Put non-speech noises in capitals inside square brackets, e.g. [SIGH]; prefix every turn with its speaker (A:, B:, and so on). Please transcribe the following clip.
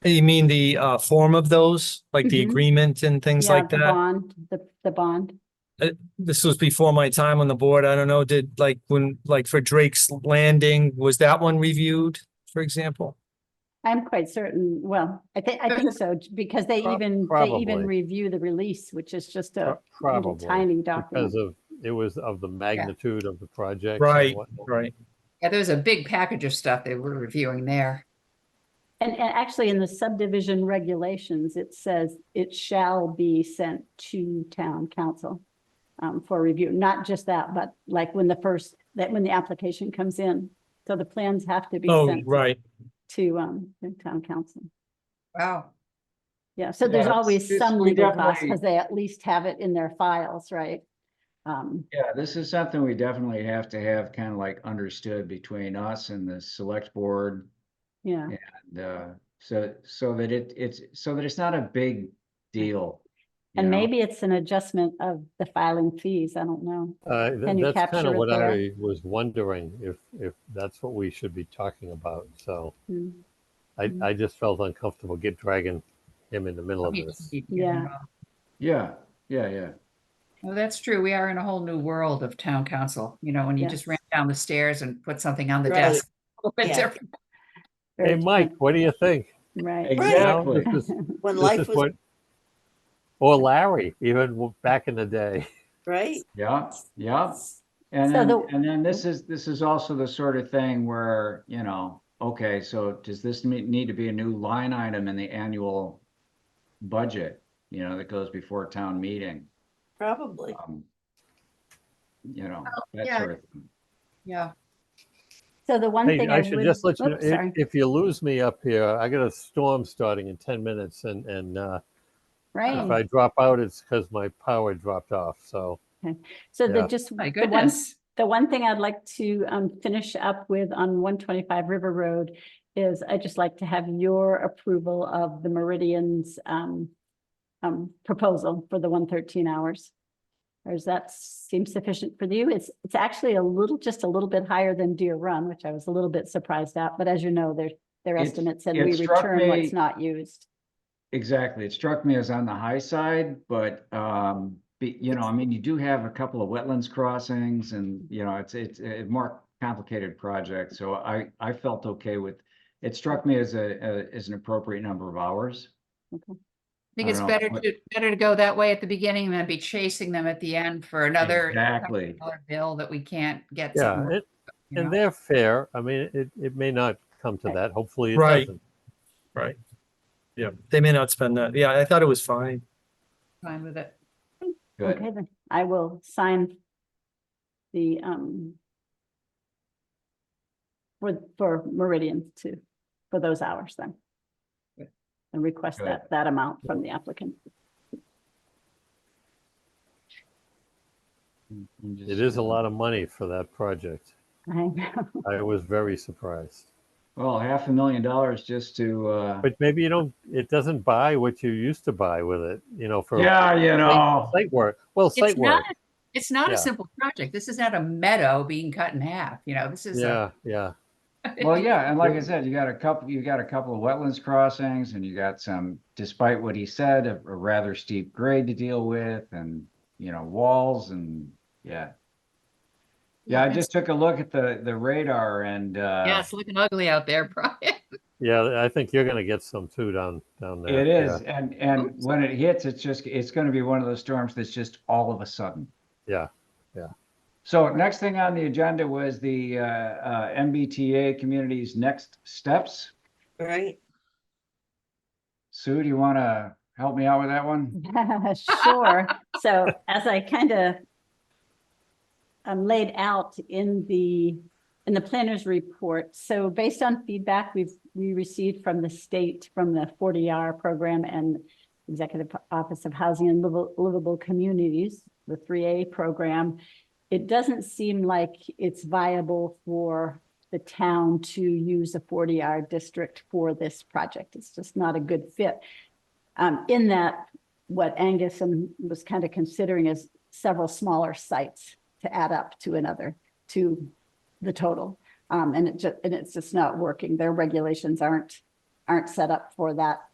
A: You mean the uh form of those, like the
B: Mhm.
A: agreement and things
B: Yeah,
A: like
B: the
A: that?
B: Bond, the, the bond.
A: This was before my time on the board. I don't know, did like when, like for Drake's Landing, was that one reviewed, for example?
B: I'm quite certain, well, I think, I
A: [LAUGHS]
B: think so, because they
C: Prob-
B: even, they even
C: probably.
B: review the release, which is just a little
C: Uh, Probably,
B: tiny
C: because
B: document.
C: of, it was of the magnitude of the project. and
A: Right,
C: whatnot.
A: Right.
D: Yeah, there's a big package of stuff they were reviewing there.
B: And, and actually in the subdivision regulations, it says it shall be sent to town council um, for review, not just that, but like when the first, that when the application comes in. So the plans have to be
A: Oh,
B: sent
A: right.
B: to, um, the town council.
D: Wow.
B: Yeah, so there's
E: Yeah, it's-
B: always
E: it's-
B: some
E: we
B: legal costs
E: definitely-
B: because they at least have it in their files, right? Um,
E: Yeah, this is something we definitely have to have kind of like understood between us and the select board.
B: yeah,
E: and, uh, so, so that it, it's, so that it's not a big deal. you
B: and
E: know?
B: maybe it's an adjustment of the filing fees, I don't know.
C: Uh, th-
B: Can you
C: That's kind
B: capture
C: of
B: it
C: what
B: there?
C: I was wondering, if, if that's what we should be talking about, so
B: Mm,
C: I, I just felt uncomfortable get dragging him in the middle of this.
B: Yeah.
E: Yeah, yeah, yeah.
D: Well, that's true. We are in a whole new world of town council, you know, when you just
B: Yes.
D: ran down the stairs and put something on the
F: Right.
D: desk. [LAUGHS] A little bit
F: Yeah.
D: different.
C: Hey,
B: very
C: Mike, what do you think?
B: different, Right.
C: You know, [LAUGHS]
E: Exactly.
B: [LAUGHS]
C: this is-
F: When
C: this
F: life
C: is
F: was,
C: what- Or Larry, even w- back in the day.
F: right?
E: Yeah, yeah. And
B: So
E: then,
B: the-
E: and then this is, this is also the sort of thing where, you know, okay, so does this me- need to be a new line item in the annual budget, you know, that goes before town meeting?
F: Probably.
E: um, You know, that
D: yeah.
E: sort of thing.
D: Yeah.
B: So the [LAUGHS] one
C: Hey,
B: thing I
C: I should
B: would.
C: just let you know,
B: oops, sorry.
C: if, if you lose me up here, I got a storm starting in ten minutes and, and, uh, if I
B: Right,
C: drop out, it's because my power dropped off, so.
B: so the
C: yeah.
B: just,
D: My
B: one-
D: goodness.
B: the one thing I'd like to um finish up with on one twenty-five River Road is I'd just like to have your approval of the Meridian's um um proposal for the one thirteen hours. Or does that seem sufficient for you? It's, it's actually a little, just a little bit higher than Deer Run, which I was a little bit surprised at, but as you know, their, their
E: It's-
B: estimates and
E: it
B: we
E: struck
B: return what's
E: me-
B: not used.
E: Exactly. It struck me as on the high side, but, um, be, you know, I mean, you do have a couple of wetlands crossings and, you know, it's, it's a more complicated project. So I, I felt okay with, it struck me as a, a- as an appropriate number of hours.
D: I think
E: I
D: it's
E: don't know.
D: better to, better to go that way at the beginning than be chasing them at the end for another
E: Exactly.
D: dollar bill that we can't get.
C: Yeah,
D: somewhere,
C: it,
D: you know?
C: and they're fair. I mean, it, it may not come to
B: Right.
C: that. Hopefully it
A: Right.
C: doesn't.
A: Right. Yeah, they may not spend that. Yeah, I thought it was fine.
D: Fine with it.
E: Good.
B: Okay, then I will sign the um for, for Meridian to, for those hours then.
D: Good.
B: And request
E: Good.
B: that, that amount from the applicant.
C: It is a lot of money for that project.
B: I know.
C: I was very surprised.
E: Well, half a million dollars just to, uh,
C: But maybe you don't, it doesn't buy what you used to buy with it, you know, for
E: yeah, you know,
C: site work. Well,
D: It's
C: site
D: not,
C: work.
D: a- it's not
C: Yeah.
D: a simple project. This is not a meadow being cut in half, you know, this is. a-
C: Yeah, yeah.
D: [LAUGHS]
E: well, yeah. And like I said, you got a couple, you got a couple of wetlands crossings and you got some, despite what he said, a a rather steep grade to deal with and, you know, walls and, yeah. Yeah, I
D: it's-
E: just took a look at the, the radar and,
D: Yeah,
E: uh,
D: it's looking ugly out there, [LAUGHS] Brian.
C: Yeah, I think you're going to get some too down, down there.
E: it
C: Yeah,
E: is, and, and
D: Oops.
E: when it hits, it's just, it's gonna be one of those storms that's just all of a sudden.
C: Yeah.
E: So next thing on the agenda was the, uh, uh, MBTA community's next steps.
F: Right?
E: Sue, do you wanna help me out with that one?
B: [LAUGHS] Sure. So as I kind of um, laid out in the, in the planner's report, so based on feedback we've, we received from the state, from the 40R program and Executive Office of Housing and Livable- Livable Communities, the 3A program, it doesn't seem like it's viable for the town to use a 40R district for this project. It's just not a good fit. Um, in that, what Angus and was kind of considering is several smaller sites to add up to another, to the total. Um, and it ju- and it's just not working. Their regulations aren't, aren't set up for that